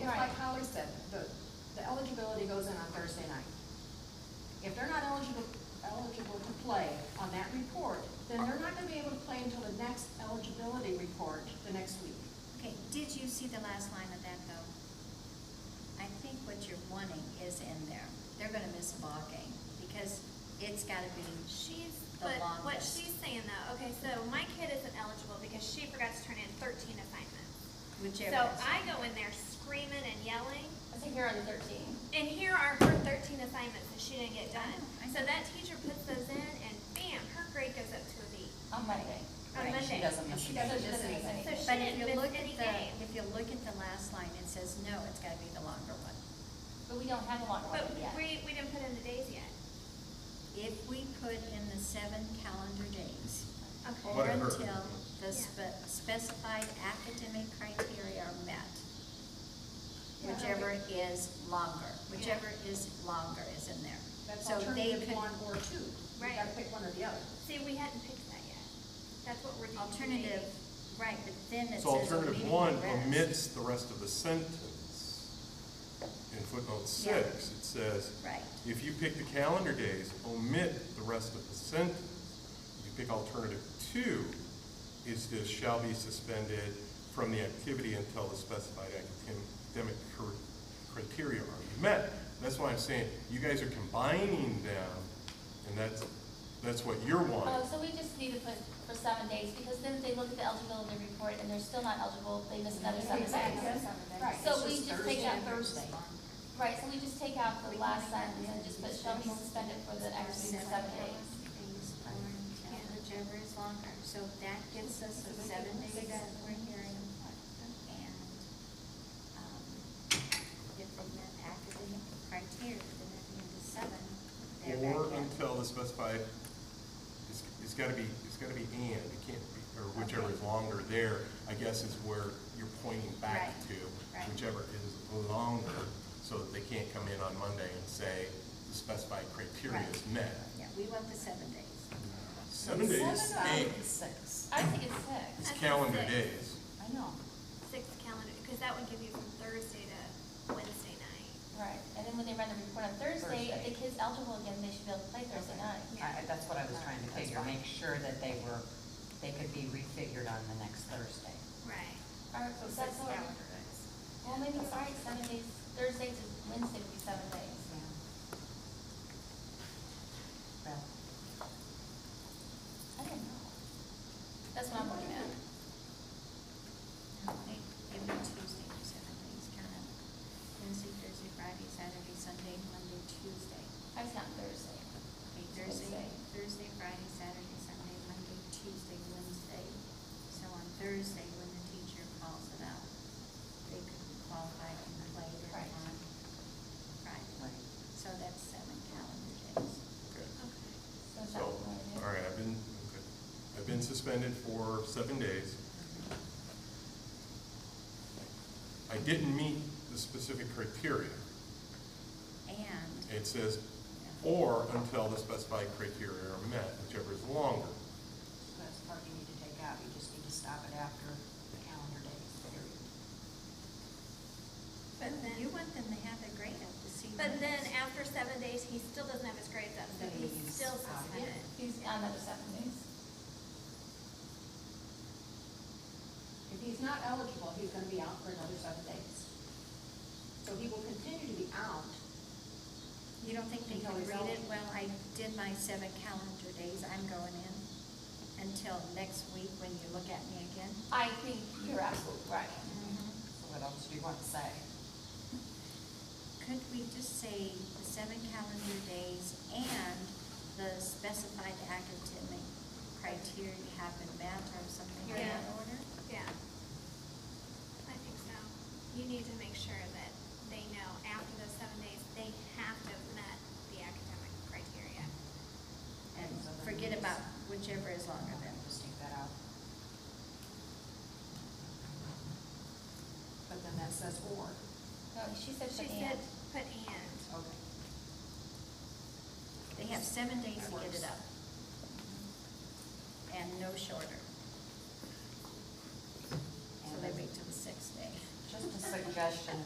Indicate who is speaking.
Speaker 1: already said, the, the eligibility goes in on Thursday night. If they're not eligible, eligible to play on that report, then they're not gonna be able to play until the next eligibility report, the next week.
Speaker 2: Okay, did you see the last line of that though? I think what you're wanting is in there. They're gonna miss a ball game because it's gotta be,
Speaker 3: She's,
Speaker 2: The
Speaker 3: but what
Speaker 2: longest.
Speaker 3: she's saying though, okay, so my kid isn't eligible because she forgot to turn in thirteen assignments.
Speaker 2: whichever.
Speaker 3: So
Speaker 2: is-
Speaker 3: I go in there screaming and yelling,
Speaker 4: I think you're on the thirteen.
Speaker 3: and here are her thirteen assignments that she didn't get done.
Speaker 2: I know, I
Speaker 3: So that teacher puts those in and bam, her grade goes up to a B
Speaker 4: On Monday.
Speaker 3: on
Speaker 2: Right,
Speaker 3: Monday.
Speaker 4: She doesn't miss.
Speaker 1: She doesn't
Speaker 4: a
Speaker 1: miss
Speaker 4: game.
Speaker 1: anything.
Speaker 3: So she
Speaker 2: But if
Speaker 3: didn't
Speaker 2: you
Speaker 3: miss
Speaker 2: look at
Speaker 3: any
Speaker 2: the,
Speaker 3: game.
Speaker 2: if you look at the last line, it says, no, it's gotta be the longer one.
Speaker 4: But we don't have a longer
Speaker 3: But
Speaker 4: one yet.
Speaker 3: we, we didn't put in the days yet.
Speaker 2: If we put in the seven calendar days,
Speaker 3: Okay.
Speaker 2: or
Speaker 5: What it hurt.
Speaker 2: until the
Speaker 3: Yeah.
Speaker 2: spe- specified academic criteria are met,
Speaker 1: Yeah.
Speaker 2: whichever is longer, whichever is longer is in there.
Speaker 1: That's
Speaker 2: So they
Speaker 1: alternative
Speaker 2: could-
Speaker 1: one or two. You
Speaker 3: Right.
Speaker 1: gotta pick one or the other.
Speaker 3: See, we hadn't picked that yet. That's what we're doing.
Speaker 2: Alternative, right, but then it says.
Speaker 5: So alternative
Speaker 2: omitting
Speaker 5: one
Speaker 2: the rest.
Speaker 5: omits the rest of the sentence. In footnote
Speaker 2: Yeah.
Speaker 5: six, it says,
Speaker 2: Right,
Speaker 5: if you pick the calendar days, omit the rest of the sentence. If You pick alternative two, is this shall be suspended from the activity until the specified academic cr- criteria are met. That's why I'm saying, you guys are combining them, and that's, that's what you're
Speaker 4: Oh,
Speaker 5: wanting.
Speaker 4: so we just need to put for seven days, because then if they look at the eligibility report and they're still not eligible, they miss another seven days.
Speaker 1: Right,
Speaker 4: So
Speaker 1: it's
Speaker 4: we just
Speaker 1: Thursday
Speaker 4: take out
Speaker 1: and Thursday.
Speaker 4: Right, so we just take out the last sentence and just put shall be suspended for the activity for seven days.
Speaker 2: things are until whichever is longer, so that gets us the seven days that we're hearing. And, um, if we met academic criteria, then that means the seven, they're back
Speaker 5: Or
Speaker 2: in.
Speaker 5: until the specified, it's, it's gotta be, it's gotta be and, it can't be, or whichever is longer there, I guess is where you're pointing back
Speaker 2: Right,
Speaker 5: to.
Speaker 2: right.
Speaker 5: Whichever is longer, so that they can't come in on Monday and say the specified criteria is met.
Speaker 2: Yeah, we want the seven days.
Speaker 5: Seven days, eight,
Speaker 1: Six.
Speaker 4: I think it's six.
Speaker 5: it's
Speaker 3: That's
Speaker 5: calendar
Speaker 3: six.
Speaker 5: days.
Speaker 1: I know.
Speaker 3: Six calendar, because that would give you from Thursday to Wednesday night.
Speaker 4: Right, and then when they run the report on Thursday, if the kid's eligible again, they should be able to play Thursday night.
Speaker 6: I, I- that's what I was trying to figure, make sure that they were, they could be refigured on the next Thursday.
Speaker 3: Right.
Speaker 4: Or, that's all. Well, maybe you're right, seven days, Thursday to Wednesday would be seven days.
Speaker 6: Well,
Speaker 4: I don't know. That's what I'm looking at.
Speaker 2: I think every Tuesday for seven days, kind of, Wednesday, Thursday, Friday, Saturday, Sunday, Monday, Tuesday.
Speaker 4: I was not Thursday.
Speaker 2: Okay, Thursday, Thursday, Friday, Saturday, Sunday, Monday, Tuesday, Wednesday. So on Thursday, when the teacher calls it out, they could be qualified and play it
Speaker 4: Right.
Speaker 2: on
Speaker 6: right.
Speaker 2: Friday. So that's seven calendar days.
Speaker 5: Okay.
Speaker 3: Okay.
Speaker 4: that's
Speaker 5: So,
Speaker 4: not what I did.
Speaker 5: all right, I've been, okay. I've been suspended for seven days. I didn't meet the specific criteria.
Speaker 2: And,
Speaker 5: It says, or until the specified criteria are met, whichever is longer.
Speaker 1: That's the part you need to take out, you just need to stop it after the calendar days, period.
Speaker 2: but then, you want them to have their grade up to see.
Speaker 3: But
Speaker 2: what-
Speaker 3: then after seven days, he still doesn't have his grades up, so
Speaker 1: Then
Speaker 3: he's
Speaker 1: he's
Speaker 3: still
Speaker 1: out.
Speaker 3: suspended.
Speaker 4: He's on another seven days.
Speaker 1: If he's not eligible, he's gonna be out for another seven days. So he will continue to be out.
Speaker 2: You don't think they
Speaker 1: Until
Speaker 2: can
Speaker 1: it's
Speaker 2: read it?
Speaker 1: out.
Speaker 2: Well, I did my seven calendar days, I'm going in until next week when you look at me again.
Speaker 4: I think you're absolutely right.
Speaker 1: Mm-hmm.
Speaker 6: So what else do you want to say?
Speaker 2: Could we just say the seven calendar days and the specified academic criteria have been met or something in that
Speaker 3: Yeah.
Speaker 2: order?
Speaker 3: Oh, Yeah. I think so. You need to make sure that they know after those seven days, they have to have met the academic criteria.
Speaker 2: And forget about whichever is longer than.
Speaker 6: Just take that out.
Speaker 1: But then that says or.
Speaker 4: No, Oh, she said
Speaker 3: She
Speaker 4: she
Speaker 3: said,
Speaker 4: and.
Speaker 3: put and.
Speaker 1: Okay.
Speaker 2: They have seven days
Speaker 1: That
Speaker 2: to get it
Speaker 1: works.
Speaker 2: up. And no shorter. So they wait till the sixth day.
Speaker 6: Just a suggestion